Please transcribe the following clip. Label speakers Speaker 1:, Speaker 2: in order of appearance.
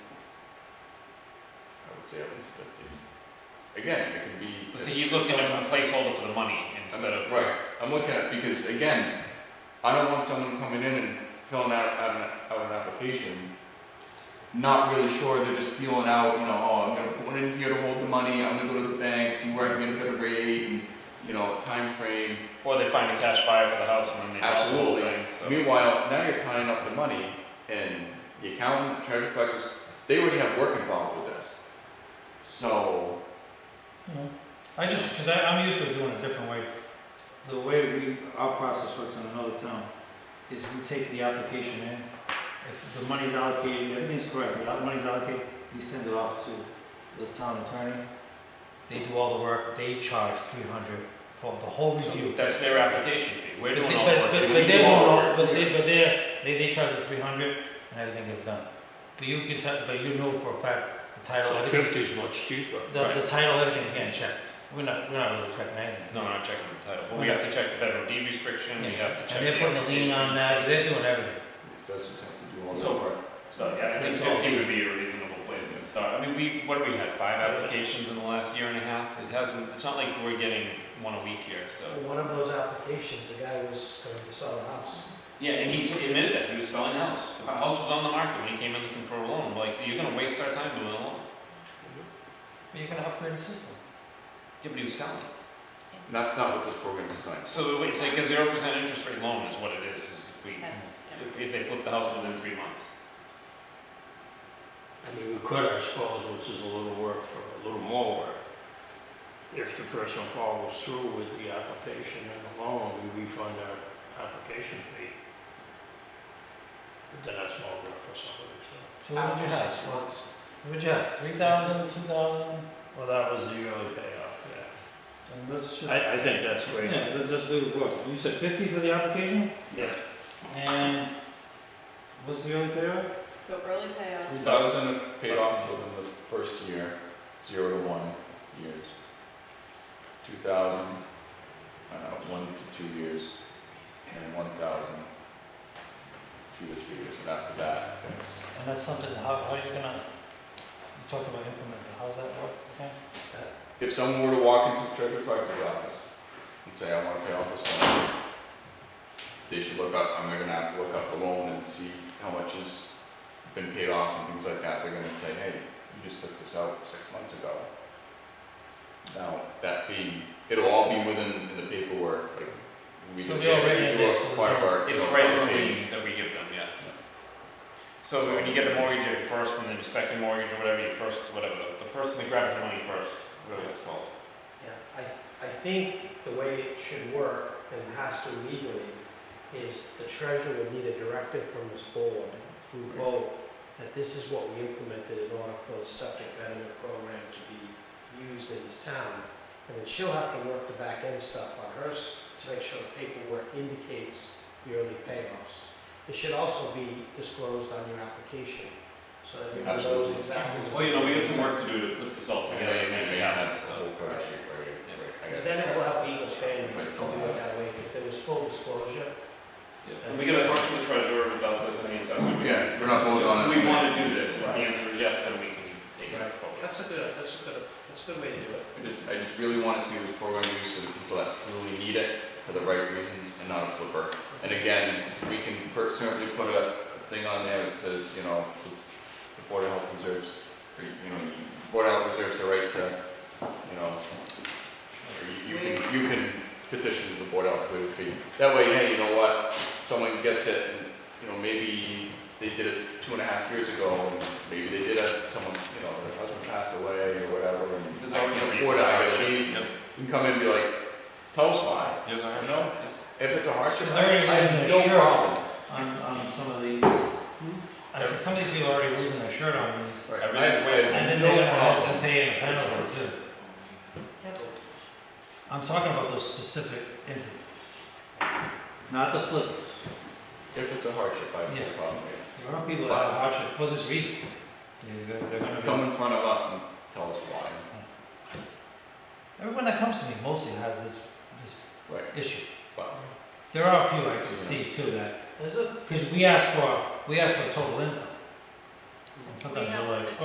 Speaker 1: would say at least fifty. Again, it can be.
Speaker 2: So he's looking at a placeholder for the money instead of.
Speaker 1: Right, I'm looking at, because again, I don't want someone coming in and filling out, out an, out an application, not really sure, they're just feeling out, you know, oh, I'm gonna put one in here to hold the money, I'm gonna go to the bank, see where I can get a better rate, and, you know, time frame.
Speaker 2: Or they find a cash buyer for the house and then they drop the whole
Speaker 1: Absolutely.
Speaker 2: thing, so.
Speaker 1: Meanwhile, now you're tying up the money, and the accountant, the treasurer collectors, they already have work involved with this. So,
Speaker 3: Mhm. I just, because I'm used to doing it a different way. The way we, our process works in another town is we take the application in. If the money's allocated, everything's correct, the money's allocated, we send it off to the town attorney. They do all the work, they charge three hundred for the whole
Speaker 2: So
Speaker 3: review.
Speaker 2: That's their application fee, we're
Speaker 3: But,
Speaker 2: doing all the
Speaker 3: but,
Speaker 2: work.
Speaker 3: but
Speaker 1: so
Speaker 3: they
Speaker 1: we
Speaker 3: don't
Speaker 1: do all the
Speaker 3: know,
Speaker 1: work.
Speaker 3: but they, but they're, they, they charge the three hundred and everything is done. But you can tell, but you know for a fact, the title,
Speaker 4: So
Speaker 3: everything's
Speaker 4: fifty is much cheaper.
Speaker 3: the, the title, everything's getting checked. We're not, we're not really checking anything.
Speaker 2: No, we're not checking the title, but we have to check the federal deed restriction, we have to check.
Speaker 3: And
Speaker 2: the
Speaker 3: they're putting a lien on
Speaker 2: application.
Speaker 3: that, they're doing everything.
Speaker 1: the assessors have to do all
Speaker 2: So-
Speaker 1: the work.
Speaker 2: So, yeah, I think
Speaker 3: That's all.
Speaker 2: fifty would be a reasonable place to start, I mean, we, what do we have, five applications in the last year and a half? It hasn't, it's not like we're getting one a week here, so.
Speaker 5: Well, One of those applications, the guy was going to sell a house.
Speaker 2: Yeah, and he admitted that, he was selling the house, the house was on the market when he came in looking for a loan, like, you're gonna waste our time doing a loan.
Speaker 3: But you're gonna upgrade the system.
Speaker 2: Yeah, but he was selling.
Speaker 1: And that's not what this program is designed.
Speaker 2: So wait, it's like a zero percent interest rate loan is what it is, is if we,
Speaker 6: That's, yeah.
Speaker 2: if, if they flip the house within three months.
Speaker 4: I mean, we could, I suppose, which is a little work for, a little more work. If the person follows through with the application and the loan, we refund our application fee. But then that's more work for somebody, so.
Speaker 3: So what would
Speaker 5: After
Speaker 3: you
Speaker 5: six
Speaker 3: have?
Speaker 5: months,
Speaker 3: What would you have, three thousand, two thousand?
Speaker 4: Well, that was the early payoff, yeah.
Speaker 3: And let's just,
Speaker 4: I, I think that's great.
Speaker 3: yeah, let's just do the work. You said fifty for the application
Speaker 4: Yeah.
Speaker 3: and what's the early payoff?
Speaker 6: So early payoff,
Speaker 1: Three thousand paid off within the first year, zero to one years. Two thousand, uh, one to two years, and one thousand, two to three years, and after that, it's,
Speaker 3: And that's something, how, how are you gonna, you talked about implementing, how's that work, okay?
Speaker 1: if someone were to walk into the treasurer collector's office and say, I wanna pay off this loan, they should look up, I'm gonna have to look up the loan and see how much has been paid off and things like that, they're gonna say, hey, you just took this out six months ago. Now, that fee, it'll all be within, in the paperwork, like, we
Speaker 3: So
Speaker 1: do, we
Speaker 3: they're already
Speaker 1: do
Speaker 3: in there, so
Speaker 1: a
Speaker 3: it's
Speaker 1: part of our, you
Speaker 2: It's
Speaker 1: know,
Speaker 2: right in
Speaker 1: our
Speaker 2: the
Speaker 1: page.
Speaker 2: range that we give them, yeah. So when you get the mortgage, your first and then your second mortgage or whatever, your first, whatever, the- the person that grabs the money first, whatever that's called.
Speaker 5: yeah, I, I think the way it should work and has to legally is the treasurer will need a directive from this board through vote that this is what we implemented in order for the septic betterment program to be used in this town. And then she'll have to work the back end stuff on hers to make sure the paperwork indicates the early payoffs. It should also be disclosed on your application, so that everyone knows
Speaker 1: Absolutely.
Speaker 5: exactly.
Speaker 2: Well, you know, we have some work to do to put this all
Speaker 1: And
Speaker 2: together,
Speaker 1: they
Speaker 2: and
Speaker 1: may
Speaker 2: we
Speaker 1: not
Speaker 2: have,
Speaker 1: have the
Speaker 2: so.
Speaker 1: whole cover sheet, right, right, I gotta
Speaker 5: Because then it
Speaker 1: check.
Speaker 5: will help Eagles fans
Speaker 1: If I
Speaker 5: to
Speaker 1: still
Speaker 5: do
Speaker 1: have
Speaker 5: it that way, because there was full disclosure.
Speaker 2: Yeah. And we gotta talk to the treasurer about this and the assessor. We-
Speaker 1: Yeah, we're not voting on it
Speaker 2: We
Speaker 1: tonight.
Speaker 2: wanna do this, if the answer is yes, then we can take it forward.
Speaker 5: That's a good, that's a good, that's a good way to do it.
Speaker 1: I just, I just really want to see the program used for the people that truly need it, for the right reasons, and not a flipper. And again, we can per- certainly put a thing on there that says, you know, the Board of Health reserves, or, you know, the Board of Health reserves the right to, you know, or you- you can, you can petition the Board of Health to waive the fee. That way, hey, you know what, someone gets it, and, you know, maybe they did it two and a half years ago, and maybe they did it, someone, you know, their husband passed away or whatever, and
Speaker 2: There's
Speaker 1: I
Speaker 2: already a
Speaker 1: can't
Speaker 2: reason
Speaker 1: afford it, I
Speaker 2: why it
Speaker 1: gotta
Speaker 2: should-
Speaker 1: leave.
Speaker 2: Yep.
Speaker 1: You can come in and be like, tell us why.
Speaker 2: Yes,
Speaker 1: You
Speaker 2: I have.
Speaker 1: know, if it's a hardship, I
Speaker 3: Larry,
Speaker 1: I
Speaker 3: I'm
Speaker 1: have no
Speaker 3: sure.
Speaker 1: problem.
Speaker 3: On, on some of these, Hmm? I said, some of these people are already losing their shirt on these.
Speaker 1: Right.
Speaker 2: Everything's
Speaker 1: I have- I have
Speaker 3: And then
Speaker 1: no
Speaker 3: they're gonna have
Speaker 1: problem.
Speaker 3: to pay a penalty too.
Speaker 5: Yeah, but
Speaker 3: I'm talking about those specific instances. Not the flippers.
Speaker 1: If it's a hardship, I have no
Speaker 3: Yeah.
Speaker 1: problem with
Speaker 3: There are people that have hardship for this reason. They- They're, they're gonna
Speaker 1: it.
Speaker 3: be-
Speaker 1: Come in front of us and tell us why.
Speaker 3: everyone that comes to me mostly has this, this
Speaker 1: Right,
Speaker 3: issue.
Speaker 1: but
Speaker 3: There are a few I can see too that,
Speaker 5: There's a
Speaker 3: because we ask for, we ask for total income. And sometimes
Speaker 6: We
Speaker 3: you're
Speaker 6: have
Speaker 3: like,
Speaker 6: to